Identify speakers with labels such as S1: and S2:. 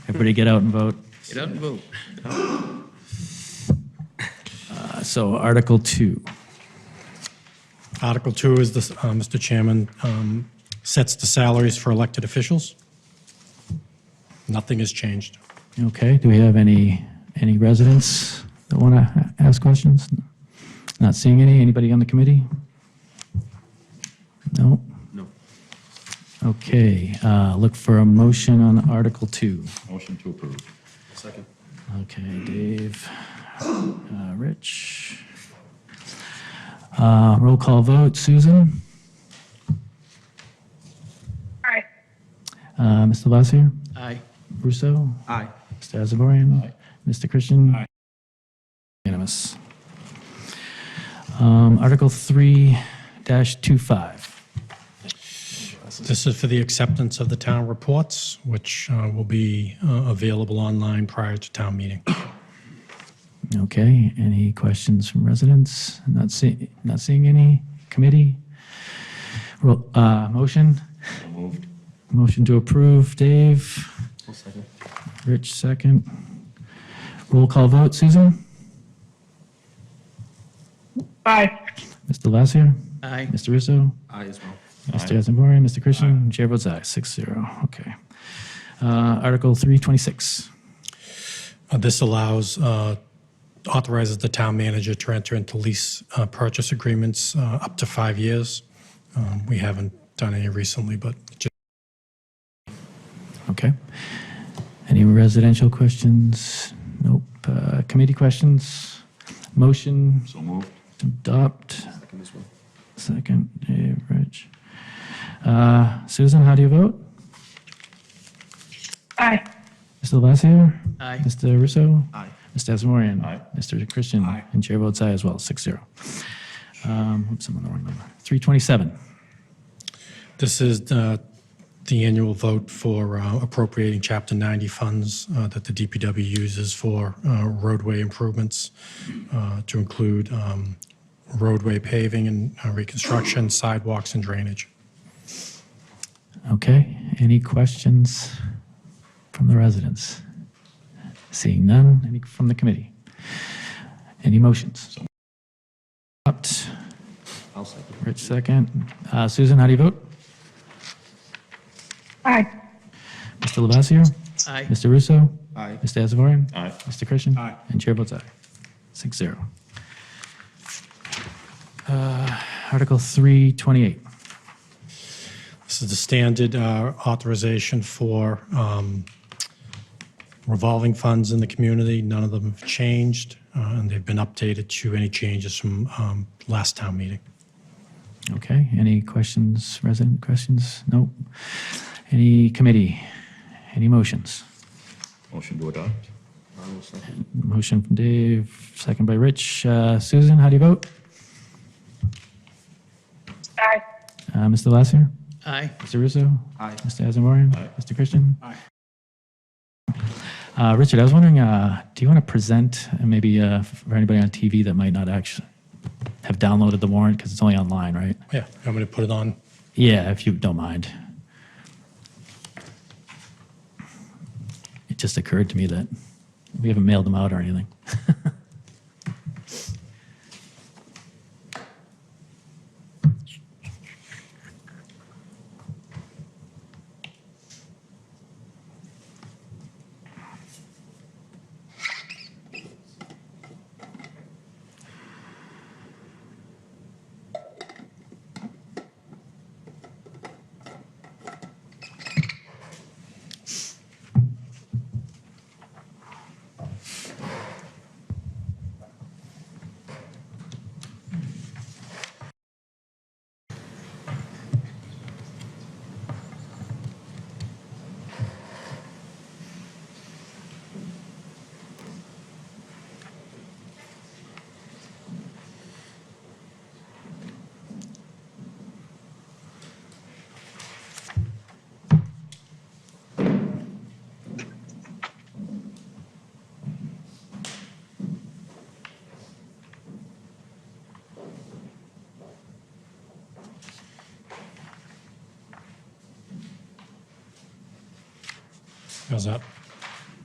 S1: Everybody get out and vote.
S2: Get out and vote.
S1: Uh, So Article 2.
S3: Article two is, the, uh, Mr. Chairman, um, sets the salaries for elected officials. Nothing has changed.
S1: Okay, do we have any, any residents that want to ask questions? Not seeing any. Anybody on the committee? No?
S2: No.
S1: Okay, uh, look for a motion on Article 2.
S2: Motion to approve. Second.
S1: Okay, Dave, uh, Rich. Uh, Roll call vote, Susan,
S4: Aye.
S1: Uh, Mr. Lavasier,
S2: Aye.
S1: Russo,
S2: Aye.
S1: Mr. Asomorion? Mr. Christian? Unanimous. Um, Article 3-25.
S3: This is for the acceptance of the town reports, which uh, will be uh, available online prior to town meeting.
S1: Okay, any questions from residents? Not see, not seeing any? Committee? Roll- uh, Motion?
S2: Moved.
S1: Motion to approve, Dave?
S2: second.
S1: Rich, second. Roll call vote, Susan?
S4: Aye.
S1: Mr. Lavasier?
S2: Aye.
S1: Mr. Russo?
S2: Aye as well.
S1: Mr. Asomorion? Mr. Christian? Chair votes aye, six zero. Okay. Uh, Article 326.
S3: Uh, This allows, uh, authorizes the town manager to enter into lease uh, purchase agreements uh, up to five years. Um, We haven't done any recently, but just
S1: Okay. Any residential questions? Nope. Uh, Committee questions? Motion
S2: So moved.
S1: to adopt?
S2: Second as well.
S1: Second, Dave, Rich. Uh, Susan, how do you vote?
S4: Aye.
S1: Mr. Lavasier?
S2: Aye.
S1: Mr. Russo?
S2: Aye.
S1: Mr. Asomorion?
S2: Aye.
S1: Mr. Christian?
S3: Aye.
S1: And chair votes aye as well, six zero. Um, Oops, I'm on the wrong number. 327.
S3: This is uh, the annual vote for uh, appropriating Chapter 90 funds uh, that the DPW uses for uh, roadway improvements uh, to include um, roadway paving and uh, reconstruction, sidewalks, and drainage.
S1: Okay, any questions from the residents? Seeing none, any from the committee? Any motions? Adopt,
S2: I'll second.
S1: Rich second. Uh, Susan, how do you vote?
S4: Aye.
S1: Mr. Lavasier?
S2: Aye.
S1: Mr. Russo?
S2: Aye.
S1: Mr. Asomorion?
S2: Aye.
S1: Mr. Christian?
S3: Aye.
S1: And chair votes aye. Six zero. Uh, Article 328.
S3: This is the standard uh, authorization for um, revolving funds in the community. None of them have changed, uh, and they've been updated to any changes from um, last town meeting.
S1: Okay, any questions, resident questions? Nope. Any committee? Any motions?
S2: Motion to adopt. I will second.
S1: Motion from Dave, second by Rich. Uh, Susan, how do you vote?
S4: Aye.
S1: Uh, Mr. Lasser?
S2: Aye.
S1: Mr. Russo?
S2: Aye.
S1: Mr. Asomorion?
S2: Aye.
S1: Mr. Christian?
S3: Aye.
S1: Uh, Richard, I was wondering, uh, do you want to present, uh, maybe uh, for anybody on TV that might not actually have downloaded the warrant, because it's only online, right?
S3: Yeah, I'm going to put it on.
S1: Yeah, if you don't mind. It just occurred to me that we haven't mailed them out or anything.
S3: How's that?